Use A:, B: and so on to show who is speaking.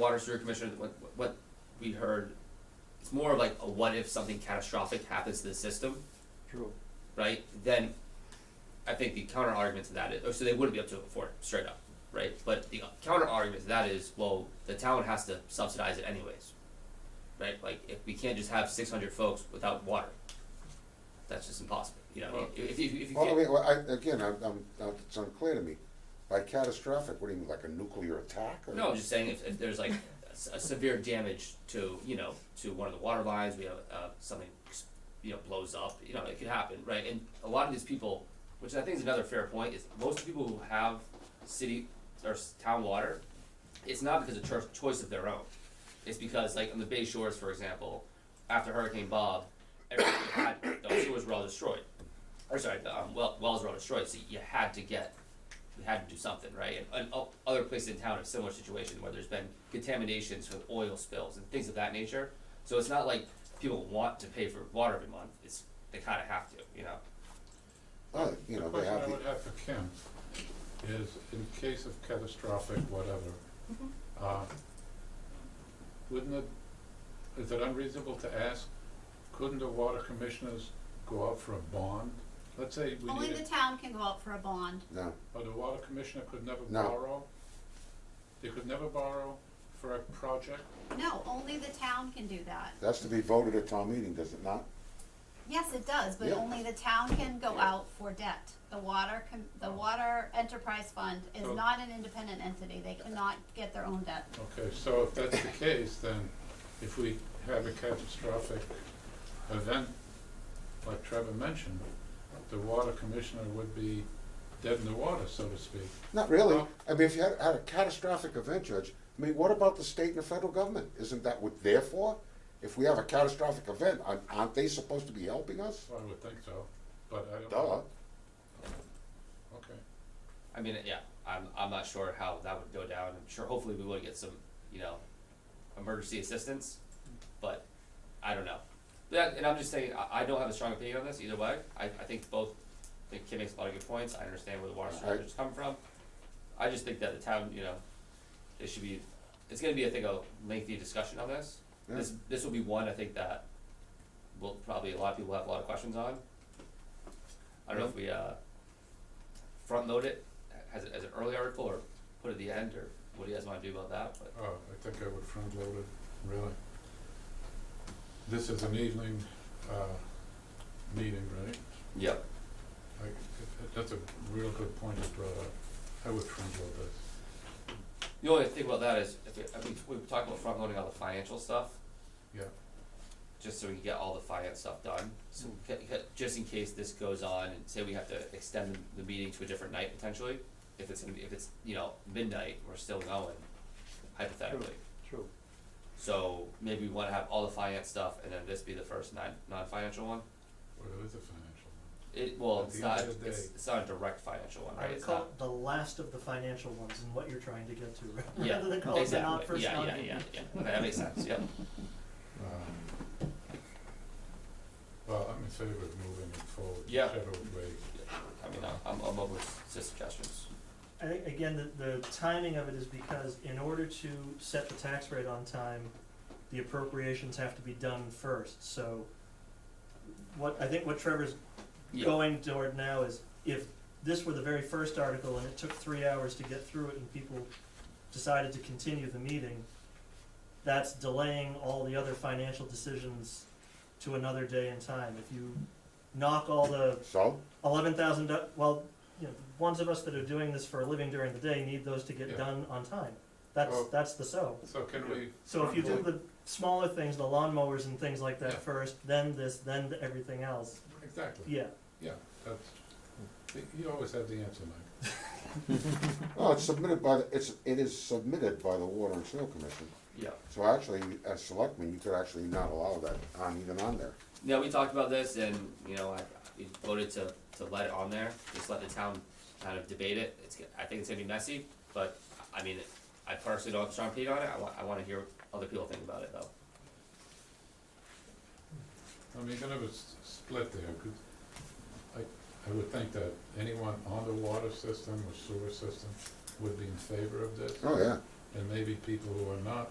A: water sewer commissioner, what, what we heard, it's more of like a what if something catastrophic happens to the system,
B: True.
A: right? Then I think the counter argument to that is, oh, so they wouldn't be up to it before, straight up, right? But the counter argument to that is, well, the town has to subsidize it anyways, right? Like, if we can't just have six hundred folks without water, that's just impossible, you know, if, if, if you
C: Well, I mean,
A: can't,
C: well, I, again, I'm, I'm, uh, it's unclear to me. By catastrophic, what do you mean, like a nuclear attack? or-
A: no, I'm just saying if, if there's like a s- a severe damage to, you know, to one of the water lines, we have, uh, something, you know, blows up, you know, it could happen, right? And a lot of these people, which I think is another fair point, is most people who have city or s- town water, it's not because of cho- choice of their own. It's because, like, on the Bay Shores, for example, after Hurricane Bob, everything had, the sewers were all destroyed. Or sorry, the um, well, wells were all destroyed, so you had to get, we had to do something, right? And, and o- other places in town have similar situations where there's been contaminations from oil spills and things of that nature. So it's not like people want to pay for water every month, it's, they kinda have to, you know?
C: Oh, you know, they
D: Question
C: have
D: I
C: the,
D: would have for Kim is, in case of catastrophic whatever,
E: Mm-hmm.
D: uh, wouldn't it, is it unreasonable to ask, couldn't the water commissioners go out for a bond? Let's say we
E: Only the
D: needed,
E: town can go out for a bond.
C: no,
D: or the water commissioner could never
C: No.
D: borrow? They could never borrow for a project?
E: No, only the town can do that.
C: that's to be voted at town meeting, does it not?
E: Yes, it does, but
C: Yeah.
E: only the town can go out for debt. The water, com- the water enterprise fund is
D: So-
E: not an independent entity. They cannot get their own debt.
D: Okay, so if that's the case, then if we have a catastrophic event, like Trevor mentioned, the water commissioner would be dead in the water, so to speak.
C: Not really.
D: No.
C: I mean, if you had, had a catastrophic event, Judge, I mean, what about the state and the federal government? Isn't that what they're for? If we have a catastrophic event, aren't, aren't they supposed to be helping us?
D: I would think so, but I don't.
C: Duh.
D: know. Okay,
A: I mean, yeah, I'm, I'm not sure how that would go down. I'm sure hopefully we will get some, you know, emergency assistance, but I don't know. That, and I'm just saying, I, I don't have a strong opinion on this either way. I, I think both, I think Kim makes a lot of good points. I understand where the water shortage is coming from. I just think that the town, you know, it should be, it's gonna be, I think, a lengthy discussion on this. This, this will be one, I think, that will probably, a lot of people have a lot of questions on. I don't know if we, uh, front load it as, as an early article or put it at the end or what do you guys wanna do about that, but.
D: oh, I think I would front load it, really. This is an evening, uh, meeting, right?
A: Yep.
D: I, that's a real good point you brought up. I would front load this.
A: The only thing about that is, if, it- I mean, we talked about front loading all the financial stuff,
D: Yeah,
A: just so we can get all the finance stuff done. So, ca- ca- just in case this goes on and say we have to extend the- the meeting to a different night potentially, if it's gonna be, if it's, you know, midnight, we're still going hypothetically.
B: True.
A: So maybe we wanna have all the finance stuff and then this be the first non, non-financial one?
D: well, it is a financial one.
A: It, well,
D: At
A: it's
D: the end
A: not,
D: of the
A: it's,
D: day.
A: it's not a direct financial one,
B: I
A: right?
B: would
A: It's
B: call
A: not,
B: it the last of the financial ones and what you're trying to get to,
A: yeah,
B: rather than call it the not
A: exactly,
B: first
A: yeah,
B: non.
A: yeah, yeah, yeah, okay, that makes sense, yep.
D: Um, Well, I'm in favor of moving it forward.
A: Yeah.
D: whichever way.
A: I mean, I'm- I'm, I'm open with suggestions.
B: I think, again, the, the timing of it is because in order to set the tax rate on time, the appropriations have to be done first, so what, I think what Trevor's
A: Yeah,
B: going toward now is if this were the very first article and it took three hours to get through it and people decided to continue the meeting, that's delaying all the other financial decisions to another day and time. If you knock all the
C: So,
B: eleven thousand, well, you know, the ones of us that are doing this for a living during the day need those to
D: Yeah.
B: get done on time. That's,
D: Well-
B: that's the so.
D: So can we?
B: So if you do
D: front load-
B: the smaller things, the lawnmowers and things like
D: Yeah.
B: that first, then this, then the everything else,
D: Exactly,
B: yeah.
D: yeah, that's, you always have the answer, Mike.
C: well, it's submitted by, the it's, it is submitted by the Water and Sewer Commission.
A: yeah.
C: So actually, as selectmen, you could actually not allow that on, even on there.
A: Now, we talked about this and, you know, I, we voted to, to let it on there, just let the town kind of debate it. It's, g- I think it's gonna be messy, but, I mean, I personally don't have a strong opinion on it. I wa- I wanna hear what other people think about it though.
D: I mean, you can have a s- split there, 'cause I, I would think that anyone on the water system or sewer system would be in favor of this.
C: Oh, yeah.
D: And maybe people who are not